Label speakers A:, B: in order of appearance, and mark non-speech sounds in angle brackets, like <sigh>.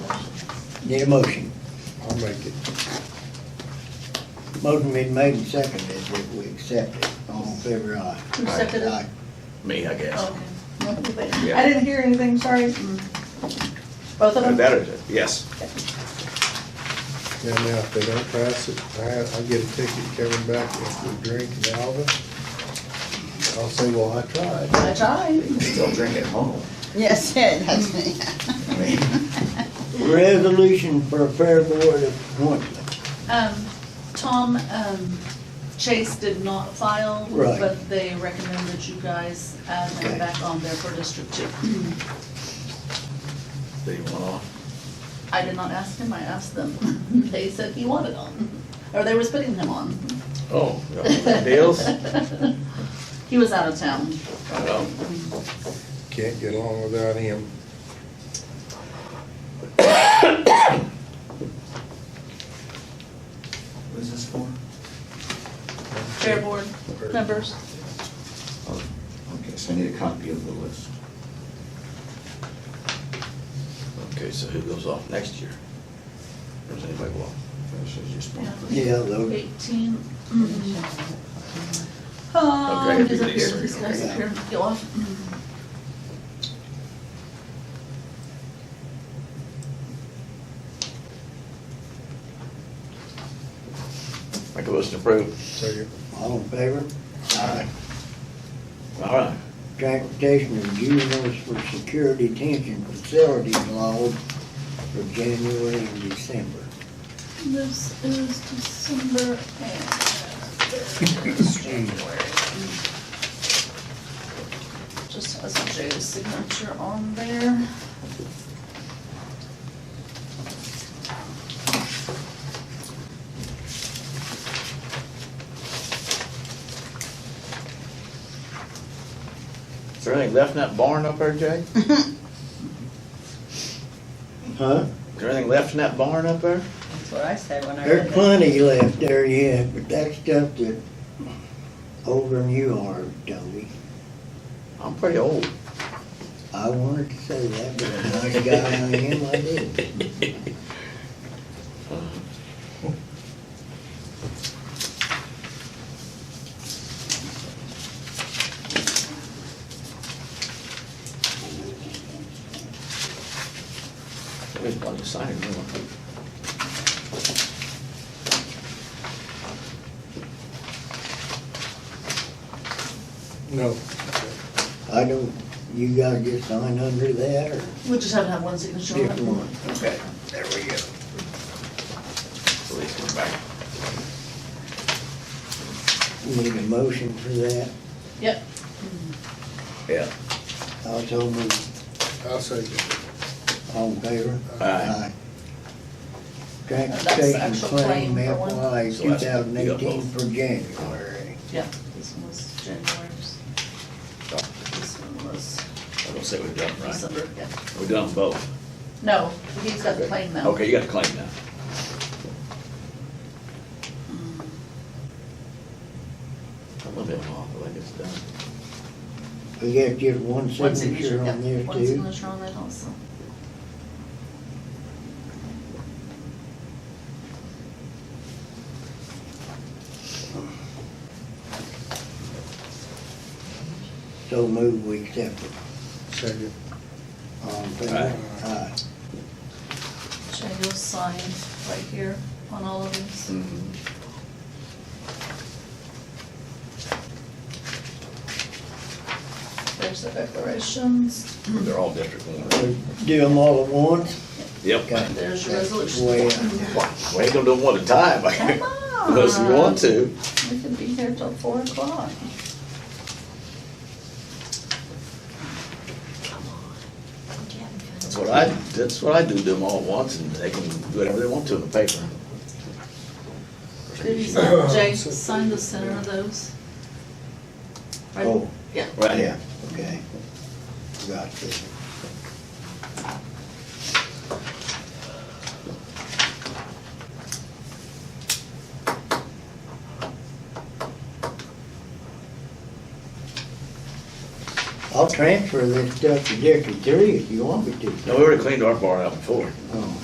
A: Need a motion.
B: I'll make it.
A: Motion been made and seconded that we accept it. All in favor, aye.
C: Who seconded it?
A: Aye.
D: Me, I guess.
C: Okay. I
D: Yeah.
C: didn't hear anything, sorry. Both of
D: Uh,
E: Oh.
C: them?
D: That is, it. yes.
B: Yeah, now, if they don't pass it, I, I get a ticket coming back if we drink in Alva. I'll say, well, I tried.
C: I tried.
D: Still drink at home.
F: Yes, yeah, that's me.
D: I mean,
A: Resolution for a fair board appointment.
C: Um, Tom, um, Chase did not file,
A: Right.
C: but they recommend that you guys add
A: Okay.
C: him back on there for District Two.
D: Do you want off?
C: I did not ask him, I asked them. They said he wanted on, or they was putting him on.
D: Oh. <laughs> Deals?
C: <laughs> He was out of town.
D: I know.
B: Can't get along without him.
D: Who's this for?
C: Fair board members.
E: Okay, so I need a copy of the list.
D: Okay, so who goes off next year? Or Does anybody go off?
E: This is just one.
C: Yeah.
A: Yeah, those,
C: Eighteen. mm. Um,
D: Okay,
C: disappear,
D: everybody's-
C: disappear, go off.
D: Make a motion to approve.
B: So you,
A: all in favor? Aye.
D: All right.
A: Transportation of juveniles for security detention facilities laws for January and December.
C: This is December
D: <laughs>
C: and this is January. Just has Jay's signature on there.
D: Is there anything left in that barn up there, Jay? Is
A: Huh?
D: there anything left in that barn up there?
F: That's what I said when I read
A: There's
F: that.
A: plenty left there yet, but that stuff that older than you are, Toby.
D: I'm pretty old.
A: I wanted to say that, but now I got on him, I did.
D: Somebody's probably decided they want to-
B: no,
A: I don't, you gotta just sign under that or
C: We just have to have one signature on it.
A: different one. Okay, there we go.
D: so they come back.
A: Need a motion for that?
C: Yep.
D: Yeah.
A: I'll tell them,
B: I'll say that.
A: all in favor?
D: Aye.
A: Transportation
C: actual
A: claim
C: claim for one.
A: FY
D: So
A: two
D: that's-
A: thousand
D: you got
A: eighteen
D: both.
A: for January.
C: Yeah, this one was January's. This one was
D: I don't say we've done them right.
C: December, yeah.
D: We've done them both.
C: No, he's got the claim now.
D: Okay, you got the claim now. A little bit off, but I think it's done.
A: We got just one
C: One signature,
A: signature
C: yeah,
A: on this
C: one
A: too.
C: signature on that also.
A: So move, we accept it. Um,
B: Second.
A: All in favor?
D: Aye.
A: Aye.
C: Jay will sign right here on all of these.
D: Mm-hmm.
C: There's the declarations.
D: They're all district one.
A: So Do them all at once?
D: Yep.
A: Okay.
C: There's your
A: That's
C: resolution.
A: way I-
D: We ain't gonna do them one at a time. <laughs>
C: Come on.
D: Unless you want to.
C: We could be here till four o'clock.
D: That's what I, that's what I do, do them all at once and they can do whatever they want to in the paper.
C: Did you sign, Jay, sign the center of those? Right?
A: Oh,
C: Yeah.
D: Right
A: yeah,
D: here.
A: okay. Got this. I'll transfer this stuff to District Three if you want me to.
D: No, we already cleaned our barn out before.
A: Oh,